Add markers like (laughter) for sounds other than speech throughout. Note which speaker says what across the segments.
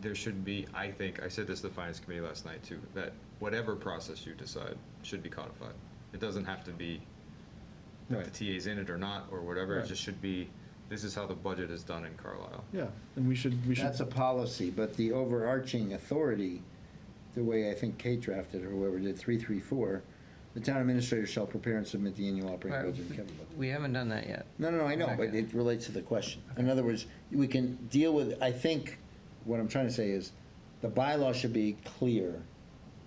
Speaker 1: there should be, I think, I said this to the finance committee last night too, that whatever process you decide should be codified. It doesn't have to be that the
Speaker 2: Right,
Speaker 1: TA's in it or not, or whatever, it
Speaker 2: Right.
Speaker 1: just should be, this is how the budget is done in Carlisle.
Speaker 2: yeah, and we should, we should.
Speaker 3: That's a policy, but the overarching authority, the way I think Kate drafted or whoever did, three, three, four, the town administrator shall prepare and submit the annual operating
Speaker 4: Right.
Speaker 3: budget and capital budget.
Speaker 4: We haven't done that yet.
Speaker 3: No, no, no, I know, but
Speaker 4: Okay.
Speaker 3: it relates to the question. In other words, we can deal with, I think, what I'm trying to say is, the bylaw should be clear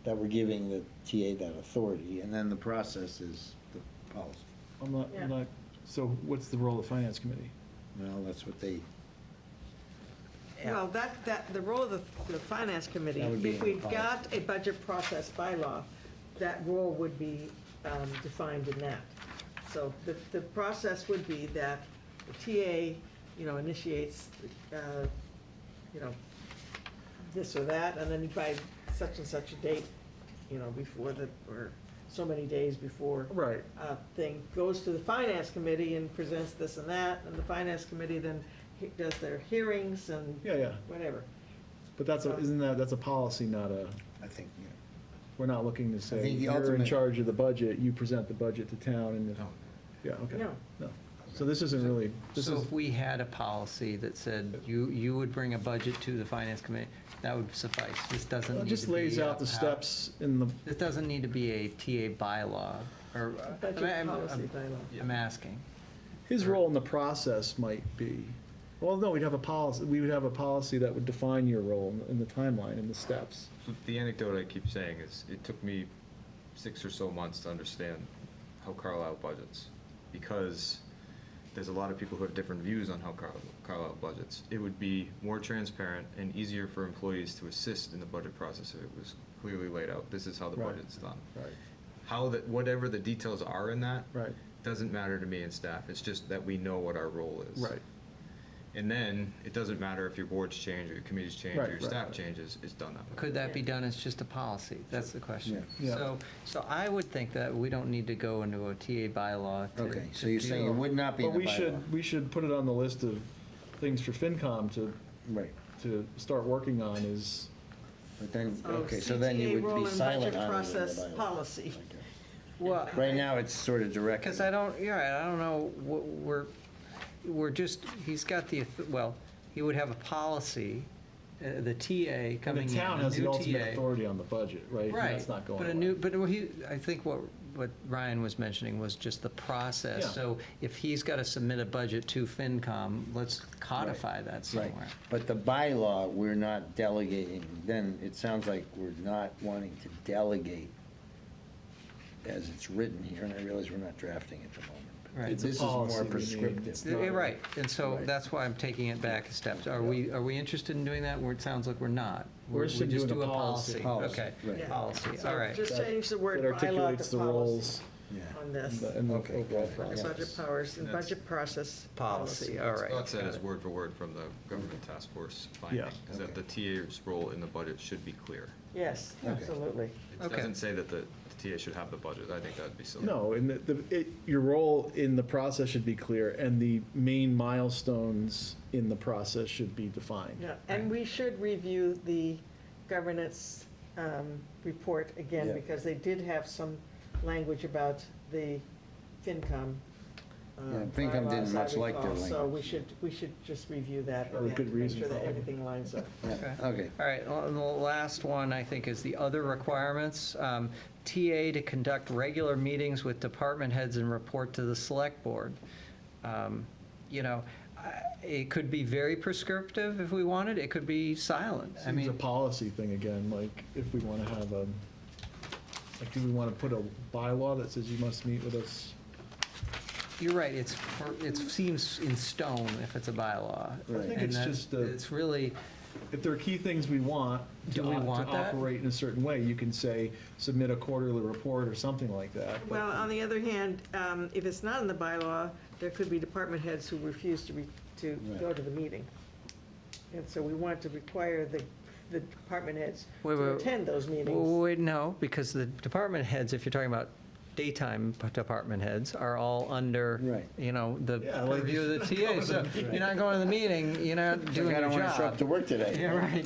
Speaker 3: that we're giving the TA that authority, and then the process is the policy.
Speaker 2: I'm not,
Speaker 5: Yeah.
Speaker 2: I'm not, so what's the role of the finance committee?
Speaker 3: Well, that's what they,
Speaker 5: Well, that, that, the role of the, the finance committee,
Speaker 3: That would be
Speaker 5: if
Speaker 3: in
Speaker 5: we've
Speaker 3: the
Speaker 5: got a budget process bylaw, that role would be um, defined in that. So the, the process would be that the TA, you know, initiates, uh, you know, this or that, and then by such and such a date, you know, before the, or so many days before
Speaker 2: Right.
Speaker 5: uh, thing goes to the finance committee and presents this and that, and the finance committee then he- does their hearings and
Speaker 2: Yeah, yeah,
Speaker 5: whatever.
Speaker 2: but that's, a isn't that, that's a policy, not a,
Speaker 3: I think, you know.
Speaker 2: we're not looking to say,
Speaker 3: think the
Speaker 2: you're in
Speaker 3: ultimate-
Speaker 2: charge of the budget, you present the budget to town and, the-" yeah, okay.
Speaker 5: No.
Speaker 2: No, so this isn't really, this
Speaker 4: So
Speaker 2: is,
Speaker 4: if we had a policy that said you, you would bring a budget to the finance committee, that would suffice. This doesn't
Speaker 2: it
Speaker 4: need
Speaker 2: just
Speaker 4: to be
Speaker 2: lays
Speaker 4: a
Speaker 2: out the
Speaker 4: pol-
Speaker 2: steps in the,
Speaker 4: This doesn't need to be a TA bylaw or. uh,
Speaker 5: A
Speaker 4: I'm-
Speaker 5: Budget policy
Speaker 4: I'm-
Speaker 5: bylaw.
Speaker 4: I'm asking.
Speaker 2: his role in the process might be, well, no, we'd have a policy, we would have a policy that would define your role in- in the timeline and the steps.
Speaker 1: So the anecdote I keep saying is, it took me six or so months to understand how Carlisle budgets, because there's a lot of people who have different views on how Car- Carlisle budgets. It would be more transparent and easier for employees to assist in the budget process if it was clearly laid out, this is how the
Speaker 2: Right.
Speaker 1: budget's done.
Speaker 2: Right.
Speaker 1: How that, whatever the details are in that.
Speaker 2: Right.
Speaker 1: Doesn't matter to me and staff, it's just that we know what our role is.
Speaker 2: Right,
Speaker 1: And then, it doesn't matter if your boards change, or your committees change,
Speaker 2: Right,
Speaker 1: or your
Speaker 2: right,
Speaker 1: staff
Speaker 2: right.
Speaker 1: changes, it's done that way.
Speaker 4: Could that be done as just a policy? That's the question.
Speaker 2: Yeah. Yeah.
Speaker 4: So, so I would think that we don't need to go into a TA bylaw to.
Speaker 3: Okay, so
Speaker 4: to
Speaker 3: you're saying it
Speaker 4: deal-
Speaker 3: would not be in
Speaker 2: but
Speaker 3: the
Speaker 2: we
Speaker 3: bylaw?
Speaker 2: should, we should put it on the list of things for FinCom to,
Speaker 3: Right,
Speaker 2: to start working on is,
Speaker 3: but then,
Speaker 5: So
Speaker 3: okay, so then
Speaker 5: CTA
Speaker 3: you would
Speaker 5: role
Speaker 3: be
Speaker 5: and
Speaker 3: silent
Speaker 5: budget
Speaker 3: on it in the
Speaker 5: process
Speaker 3: bylaw.
Speaker 5: policy.
Speaker 3: Okay.
Speaker 4: Well,
Speaker 3: Right now, it's sort of direct.
Speaker 4: Because I don't, you're right, I don't know, what we're, we're just, he's got the, auth- well, he would have a policy, uh, the TA
Speaker 2: and
Speaker 4: coming in,
Speaker 2: the town
Speaker 4: a
Speaker 2: has the
Speaker 4: new
Speaker 2: ultimate
Speaker 4: TA.
Speaker 2: authority on the budget, right? And
Speaker 4: Right.
Speaker 2: That's not going
Speaker 4: But a
Speaker 2: away.
Speaker 4: new, but he, I think what, what Ryan was mentioning was just the process.
Speaker 2: Yeah.
Speaker 4: So if he's got to submit a budget to FinCom, let's codify that
Speaker 3: Right,
Speaker 4: somewhere.
Speaker 3: but the bylaw, we're not delegating, then it sounds like we're not wanting to delegate as it's written here, and I realize we're not drafting at the moment. but
Speaker 4: Right. It's
Speaker 2: a
Speaker 3: This is more
Speaker 2: policy we need. It's
Speaker 3: prescriptive.
Speaker 2: not-
Speaker 4: You're Right, and so
Speaker 3: Right.
Speaker 4: that's why I'm taking it back a step. Are we, are we interested in doing that? Where it sounds like we're not.
Speaker 2: We're
Speaker 4: We
Speaker 2: interested in
Speaker 4: just
Speaker 2: doing
Speaker 4: do
Speaker 2: a policy.
Speaker 3: Policy,
Speaker 4: Okay,
Speaker 3: right.
Speaker 4: policy,
Speaker 5: So
Speaker 4: all right.
Speaker 5: Just
Speaker 2: That-
Speaker 5: change the word
Speaker 2: That
Speaker 5: bylaw
Speaker 2: articulates
Speaker 5: to
Speaker 2: the
Speaker 5: policy
Speaker 2: roles
Speaker 3: Yeah,
Speaker 5: on
Speaker 2: and
Speaker 5: this.
Speaker 2: the and the
Speaker 3: Okay.
Speaker 2: overall
Speaker 5: Under
Speaker 2: process.
Speaker 5: budget powers and
Speaker 1: That's-
Speaker 5: budget process
Speaker 4: Policy,
Speaker 5: policy.
Speaker 4: all right.
Speaker 1: Scott said
Speaker 4: got
Speaker 1: is
Speaker 4: it.
Speaker 1: word for word from the government task force finding,
Speaker 2: Yeah.
Speaker 1: is that the TA's role in the budget should be clear.
Speaker 5: Yes,
Speaker 3: Okay.
Speaker 5: absolutely.
Speaker 1: It
Speaker 4: Okay.
Speaker 1: doesn't say that the the TA should have the budget, I think that'd be silly.
Speaker 2: No, and the, the, it, your role in the process should be clear, and the main milestones in the process should be defined.
Speaker 5: Yeah, and we should review the governance um, report again,
Speaker 3: Yeah.
Speaker 5: because they did have some language about the FinCom. uh,
Speaker 3: Yeah, FinCom didn't
Speaker 5: bylaws, I
Speaker 3: much like their
Speaker 5: recall, So we
Speaker 3: language.
Speaker 5: should, we should just review that.
Speaker 2: Oh,
Speaker 5: again
Speaker 2: good
Speaker 5: to
Speaker 2: reason,
Speaker 5: Make sure that
Speaker 2: probably.
Speaker 5: everything lines up.
Speaker 3: yeah, okay.
Speaker 4: All right, well, and the last one, I think, is the other requirements. Um, TA to conduct regular meetings with department heads and report to the select board. Um, You know, I- it could be very prescriptive if we wanted, it could be silent. I
Speaker 2: It's a
Speaker 4: mean,
Speaker 2: policy thing again, like, if we wanna have a, like, do we wanna put a bylaw that says you must meet with us?
Speaker 4: you're right, it's, for- it seems in stone if it's a bylaw.
Speaker 2: I think
Speaker 4: And
Speaker 2: it's
Speaker 4: that-
Speaker 2: just a-
Speaker 4: It's really,
Speaker 2: If there are key things we want to
Speaker 4: Do we
Speaker 2: op-
Speaker 4: want
Speaker 2: to
Speaker 4: that?
Speaker 2: operate in a certain way, you can say, submit a quarterly report or something like that. but-
Speaker 5: Well, on the other hand, um, if it's not in the bylaw, there could be department heads who refuse to, re- to go
Speaker 3: Right.
Speaker 5: to the meeting. And so we want to require the, the department heads
Speaker 4: Wait,
Speaker 5: to
Speaker 4: wait.
Speaker 5: attend those meetings.
Speaker 4: Well, Oh, Wait, no, because the department heads, if you're talking about daytime p- department heads, are all under,
Speaker 3: Right.
Speaker 4: you know, the
Speaker 2: Yeah, like- (laughs)
Speaker 4: purview of the TA. So you're not going to the meeting, you're not
Speaker 3: Like,
Speaker 4: doing
Speaker 3: I
Speaker 4: your
Speaker 3: don't wanna show up to
Speaker 4: job.
Speaker 3: work today.
Speaker 4: (laughs) Yeah, right.